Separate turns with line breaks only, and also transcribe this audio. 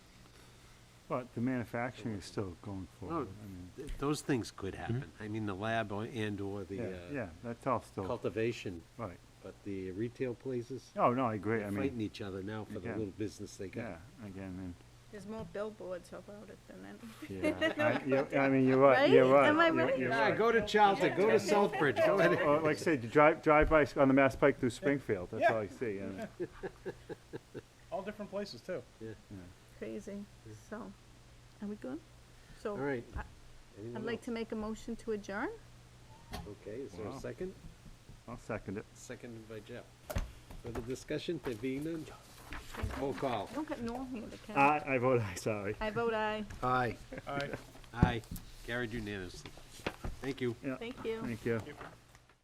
But the manufacturing is still going
Oh,
forward. I mean,
Th- Those things could happen. I mean, the lab or- and/or the
Yeah,
uh,
yeah, that's all still,
cultivation,
right.
but the retail places,
Oh, no, I agree, I
they're fighting
mean,
each other now for the
again.
little business they
yeah,
got.
again,
There's more billboards about it than anything.
Yeah.
and, I, you- I mean, you're right, you're
Right?
right.
Am I
you're-
right?
you're
Yeah, go to Charlton, go to Southbridge, go ahead.
Or like I said, you drive, drive by s- on the Mass Pike through Springfield, that's all you see, and,
All different places too.
Crazy. So, are we good? So,
All right.
I-
Anyone
I'd like to make a motion to adjourn.
else? Okay, is there
Wow.
a second?
I'll second it.
Seconded by Jeff. Further discussion, there being none? Roll call.
Don't get no here, okay?
I, I vote Oh. aye, sorry.
I vote aye.
Aye.
All right.
Aye. Carried unanimously. Thank you.
Yeah,
Thank you.
Thank you.